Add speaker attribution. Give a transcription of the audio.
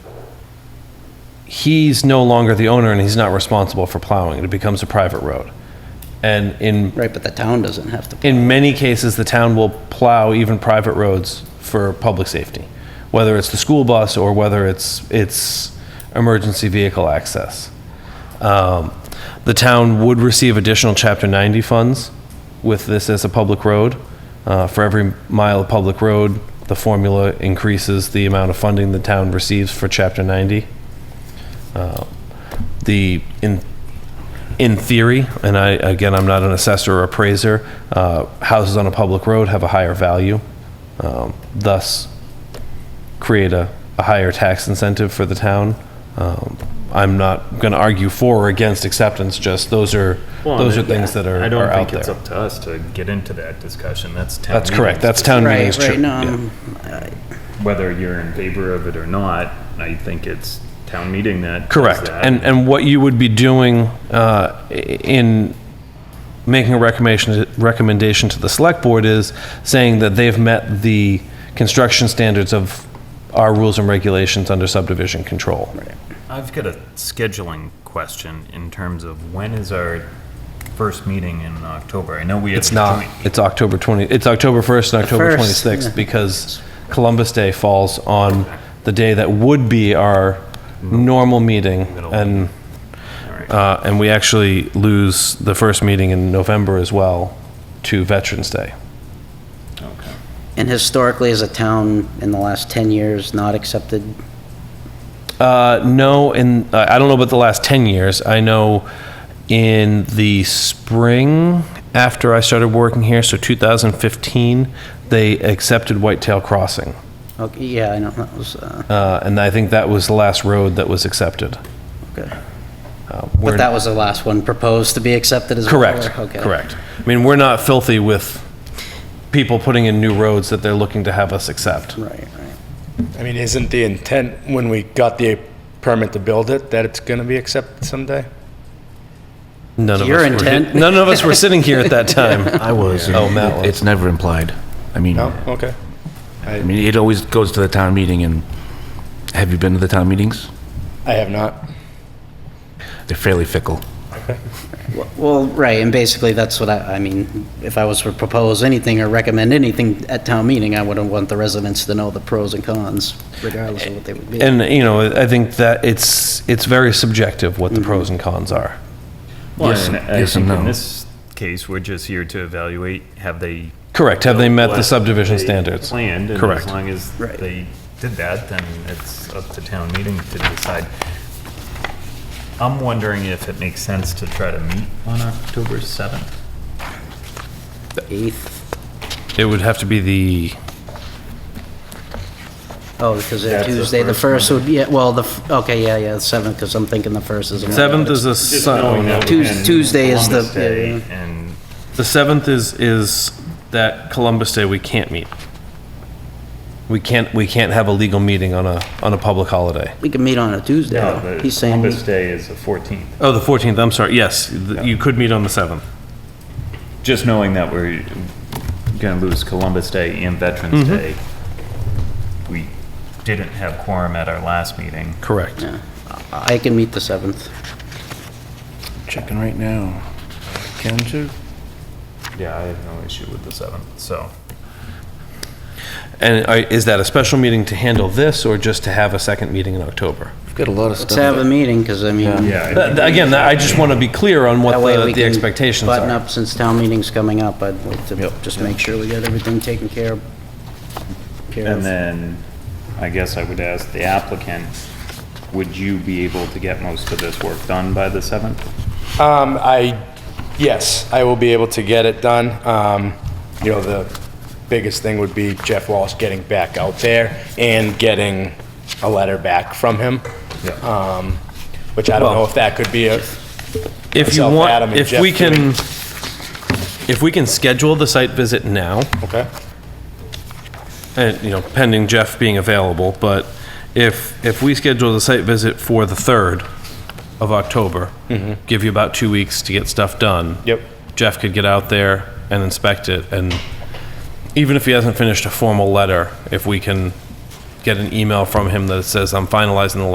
Speaker 1: he's no longer the owner and he's not responsible for plowing. It becomes a private road. And in,
Speaker 2: Right, but the town doesn't have to.
Speaker 1: in many cases, the town will plow even private roads for public safety, whether it's the school bus or whether it's, it's emergency vehicle access. Um, The town would receive additional Chapter 90 funds with this as a public road. Uh, For every mile of public road, the formula increases the amount of funding the town receives for Chapter 90. Uh, The, in, in theory, and I, again, I'm not an assessor or appraiser, uh, houses on a public road have a higher value, um, thus create a, a higher tax incentive for the town. Um, I'm not going to argue for or against acceptance, just those are,
Speaker 3: Well,
Speaker 1: those are
Speaker 3: and
Speaker 1: things that are
Speaker 3: I
Speaker 1: are
Speaker 3: don't
Speaker 1: out
Speaker 3: think it's
Speaker 1: there.
Speaker 3: up to us to get into that discussion. That's town.
Speaker 1: That's correct, that's
Speaker 3: meeting's
Speaker 1: town
Speaker 2: Right,
Speaker 1: meeting's true.
Speaker 2: right, no, um,
Speaker 1: Yeah.
Speaker 2: I'm-
Speaker 3: decision. Whether you're in favor of it or not, I think it's town meeting that. does
Speaker 1: Correct.
Speaker 3: that.
Speaker 1: And, and what you would be doing uh, i- in making a recommendation, recommendation to the select board is saying that they've met the construction standards of our rules and regulations under subdivision control.
Speaker 3: I've got a scheduling question in terms of when is our first meeting in October? I know we have.
Speaker 1: It's
Speaker 3: a
Speaker 1: not,
Speaker 3: joint-
Speaker 1: it's October 20, it's October 1st and October
Speaker 2: First,
Speaker 1: 26th
Speaker 2: yeah.
Speaker 1: because Columbus Day falls on the day that would be our normal meeting.
Speaker 3: Middle.
Speaker 1: And
Speaker 3: All right.
Speaker 1: Uh, And we actually lose the first meeting in November as well to Veterans Day.
Speaker 3: Okay.
Speaker 2: And historically, as a town, in the last 10 years, not accepted,
Speaker 1: Uh, No, in, I I don't know about the last 10 years. I know in the spring, after I started working here, so 2015, they accepted Whitetail Crossing.
Speaker 2: okay, oh, yeah, I know, that was, uh,
Speaker 1: Uh, And I think that was the last road that was accepted.
Speaker 2: okay.
Speaker 1: Uh,
Speaker 2: But
Speaker 1: we're-
Speaker 2: that was the last one proposed to be accepted as well?
Speaker 1: Correct,
Speaker 2: or- okay.
Speaker 1: correct. I mean, we're not filthy with people putting in new roads that they're looking to have us accept.
Speaker 2: Right, right.
Speaker 4: I mean, isn't the intent when we got the permit to build it that it's going to be accepted someday?
Speaker 1: None of
Speaker 2: Your
Speaker 1: us
Speaker 2: intent.
Speaker 1: Were, none of us were sitting here at that time. I
Speaker 5: was.
Speaker 1: Oh, Matt was.
Speaker 5: It's never implied. I mean,
Speaker 4: No?
Speaker 5: I
Speaker 4: Okay.
Speaker 5: mean, it always goes to the town meeting and have you been to the town meetings?
Speaker 4: I have not.
Speaker 5: They're fairly fickle.
Speaker 2: Well, right, and basically, that's what I, I mean, if I was to propose anything or recommend anything at town meeting, I wouldn't want the residents to know the pros and cons, regardless of what they would be.
Speaker 1: And you know, I think that it's it's very subjective what the
Speaker 2: Mm-hmm.
Speaker 1: pros and cons are.
Speaker 3: Well,
Speaker 5: Yes
Speaker 3: and
Speaker 5: and-
Speaker 3: I
Speaker 5: yes and
Speaker 3: think in
Speaker 5: no.
Speaker 3: this case, we're just here to evaluate, have they.
Speaker 1: Correct. Have they met the
Speaker 3: what
Speaker 1: subdivision
Speaker 3: they
Speaker 1: standards?
Speaker 3: Planned, and as
Speaker 1: Correct.
Speaker 3: long as
Speaker 2: Right.
Speaker 3: they did that, then it's up to town meeting to decide. I'm wondering if it makes sense to try to meet on October 7th?
Speaker 2: Eighth,
Speaker 1: It would have to be the
Speaker 2: oh, because
Speaker 3: That's the
Speaker 2: Tuesday, the
Speaker 3: first
Speaker 2: first would be, yeah, well, the, f- okay, yeah, yeah, the seventh, because I'm thinking the first is. a Monday.
Speaker 1: seventh is a
Speaker 3: knowing that
Speaker 1: Sun-
Speaker 2: Tues-
Speaker 3: and
Speaker 2: Tuesday is the-
Speaker 3: Columbus Day
Speaker 2: yeah,
Speaker 3: And
Speaker 1: the seventh is is that Columbus Day we can't meet. We can't we can't have a legal meeting on a on a public holiday.
Speaker 2: We can meet on a Tuesday,
Speaker 3: no,
Speaker 2: though.
Speaker 3: the
Speaker 2: He's saying,
Speaker 3: Columbus Day is the 14th.
Speaker 1: Oh, the fourteenth. I'm sorry. Yes, th- you could meet on the seventh.
Speaker 3: Just knowing that we're going to lose Columbus Day and Veterans
Speaker 2: Mm-hmm.
Speaker 3: Day, we didn't have quorum at our last meeting.
Speaker 1: Correct.
Speaker 2: yeah, I can meet the seventh.
Speaker 5: Checking right now. Can you?
Speaker 3: Yeah, I have no issue with the 7th, so.
Speaker 1: And are, is that a special meeting to handle this, or just to have a second meeting in October?
Speaker 5: We've got a lot of
Speaker 2: Let's have a
Speaker 5: stuff.
Speaker 2: meeting, because I mean,
Speaker 3: Yeah.
Speaker 1: Th- th- Again, that- I just want to be clear on what
Speaker 2: that way
Speaker 1: the,
Speaker 2: we
Speaker 1: the
Speaker 2: can
Speaker 1: expectations
Speaker 2: button
Speaker 1: are.
Speaker 2: up since town meeting's coming up. I'd like to just make sure we got everything taken care of. care
Speaker 3: And
Speaker 2: of.
Speaker 3: then, I guess I would ask the applicant, would you be able to get most of this work done by the 7th?
Speaker 4: Um, I, yes, I will be able to get it done. Um, you know, the biggest thing would be Jeff Walsh getting back out there and getting a letter back from him.
Speaker 3: Yeah.
Speaker 4: Um, which I don't know if that could be a,
Speaker 1: If you
Speaker 4: myself, Adam,
Speaker 1: want,
Speaker 4: and
Speaker 1: if
Speaker 4: Jeff
Speaker 1: we can,
Speaker 4: doing-
Speaker 1: if we can schedule the site visit now,
Speaker 4: okay?
Speaker 1: and, you know, pending Jeff being available, but if, if we schedule the site visit for the 3rd of October, give you about two weeks to get stuff done.
Speaker 4: Mm-hmm. Yep.
Speaker 1: Jeff could get out there and inspect it, and even if he hasn't finished a formal letter, if we can get an email from him that says, I'm finalizing the